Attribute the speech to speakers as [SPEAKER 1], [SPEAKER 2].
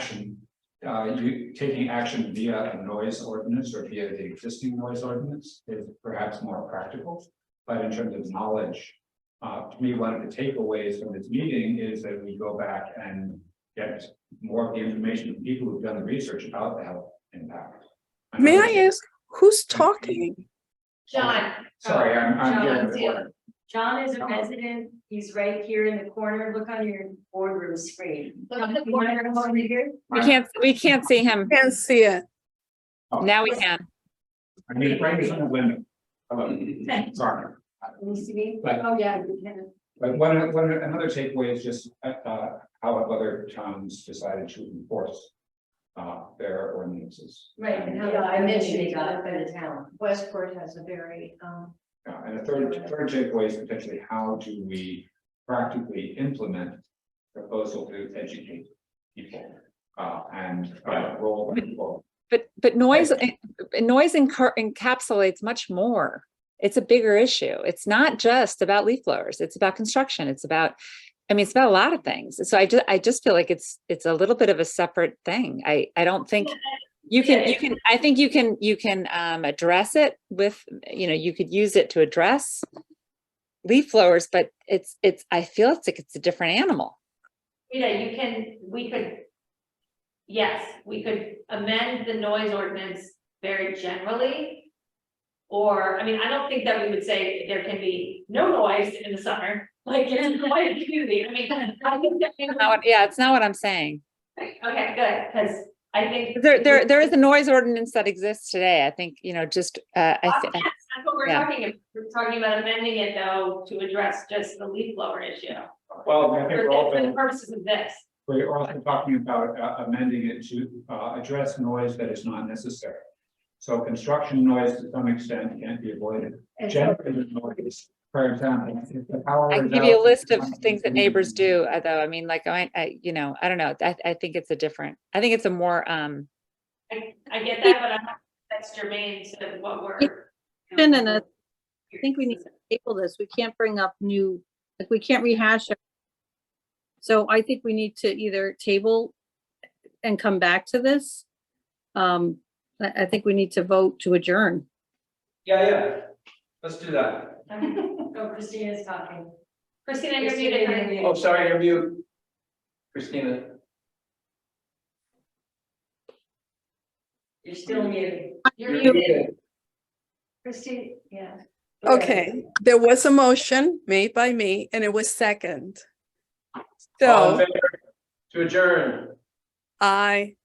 [SPEAKER 1] action, uh, you taking action via a noise ordinance or via the existing noise ordinance is perhaps more practical. But in terms of knowledge, uh, to me, one of the takeaways from this meeting is that we go back and get more of the information from people who've done the research about the health impact.
[SPEAKER 2] May I ask who's talking?
[SPEAKER 3] John,
[SPEAKER 1] Sorry, I'm, I'm getting
[SPEAKER 3] John's
[SPEAKER 1] the
[SPEAKER 3] here.
[SPEAKER 1] order.
[SPEAKER 3] John is a resident, he's right here in the corner, look on your boardroom screen.
[SPEAKER 4] Look at the corner over
[SPEAKER 3] here.
[SPEAKER 4] We can't, we can't see him.
[SPEAKER 2] Can't see it.
[SPEAKER 4] Now we can.
[SPEAKER 1] I'm gonna bring this on the window. Hello, sorry.
[SPEAKER 3] Can you see me?
[SPEAKER 1] Right.
[SPEAKER 3] Oh, yeah, you can.
[SPEAKER 1] But one, one, another takeaway is just, uh, uh, how have other towns decided to enforce. Uh, their ordinances.
[SPEAKER 3] right, and
[SPEAKER 1] And,
[SPEAKER 3] how
[SPEAKER 5] Yeah, I
[SPEAKER 3] I
[SPEAKER 5] mentioned
[SPEAKER 3] mentioned
[SPEAKER 5] it.
[SPEAKER 3] it up in the town.
[SPEAKER 5] Westport has a very, um,
[SPEAKER 1] uh, and a third, third takeaway is potentially how do we practically implement proposal to educate people? Uh, and, uh, role people.
[SPEAKER 4] But, but noise, eh, noise encar- encapsulates much more. It's a bigger issue. It's not just about leaf blowers. It's about construction. It's about, I mean, it's about a lot of things. So I just, I just feel like it's, it's a little bit of a separate thing. I, I don't think you can, you can, I think you can, you can, um, address it with, you know, you could use it to address leaf blowers, but it's, it's, I feel it's like it's a different animal.
[SPEAKER 5] you know, you can, we could. Yes, we could amend the noise ordinance very generally. Or, I mean, I don't think that we would say there can be no noise in the summer, like in a quiet community, I mean. I think that-
[SPEAKER 4] Not what- Yeah, it's not what I'm saying.
[SPEAKER 5] Okay, good, because I think.
[SPEAKER 4] There, there, there is a noise ordinance that exists today. I think, you know, just, uh, I, thi-
[SPEAKER 5] That's what we're
[SPEAKER 4] yeah.
[SPEAKER 5] talking about, we're talking about amending it though to address just the leaf blower issue.
[SPEAKER 1] Well, I think
[SPEAKER 5] For
[SPEAKER 1] we're all.
[SPEAKER 5] the for the purposes of this.
[SPEAKER 1] We're also talking about uh, amending it to uh, address noise that is not necessary. So construction noise to some extent can be avoided.
[SPEAKER 3] And so-
[SPEAKER 1] Generated noise, for example. if the power
[SPEAKER 4] I can
[SPEAKER 1] is
[SPEAKER 4] give you a
[SPEAKER 1] out-
[SPEAKER 4] list of things that neighbors
[SPEAKER 1] Mm-hmm.
[SPEAKER 4] do, uh, though. I mean, like, I, I, you know, I don't know. I, I think it's a different, I think it's a more, um,
[SPEAKER 5] I, I get that, but I'm not, that's germane to what we're.
[SPEAKER 6] Question and a- I think we need to table this. We can't bring up new, like, we can't rehash it. So I think we need to either table and come back to this. Um, I, I think we need to vote to adjourn.
[SPEAKER 7] Yeah, yeah, let's do that.
[SPEAKER 3] Oh, Christina's talking.
[SPEAKER 5] Christina, you're muted.
[SPEAKER 3] Christina,
[SPEAKER 5] honey.
[SPEAKER 3] you're
[SPEAKER 7] Oh,
[SPEAKER 3] muted.
[SPEAKER 7] sorry, you're mute. Christina,
[SPEAKER 3] You're still muted.
[SPEAKER 5] You're
[SPEAKER 7] you're
[SPEAKER 5] muted.
[SPEAKER 7] muted.
[SPEAKER 5] Christina, yeah.
[SPEAKER 2] Okay, there was a motion made by me and it was second.
[SPEAKER 7] All in
[SPEAKER 2] So
[SPEAKER 7] favor To adjourn.
[SPEAKER 2] I.